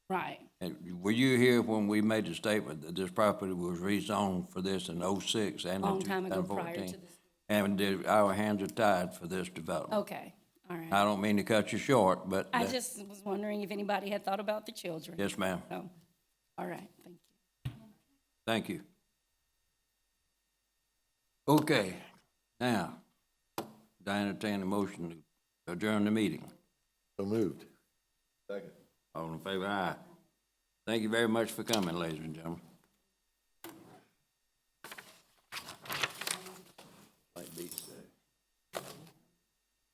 Right. And were you here when we made the statement that this property was rezoned for this in oh-six and in Long two time ago, thousand prior to fourteen? this. And did- our hands are tied for this development. Okay, all right. I don't mean to cut you short, but. Oh. I that- just was wondering if anybody had thought about the children. Yes, ma'am. So, all right, thank you. Thank you. Okay, now, I entertain a motion to adjourn the meeting. So moved. All in favor, aye. Thank you very much for coming, ladies and gentlemen.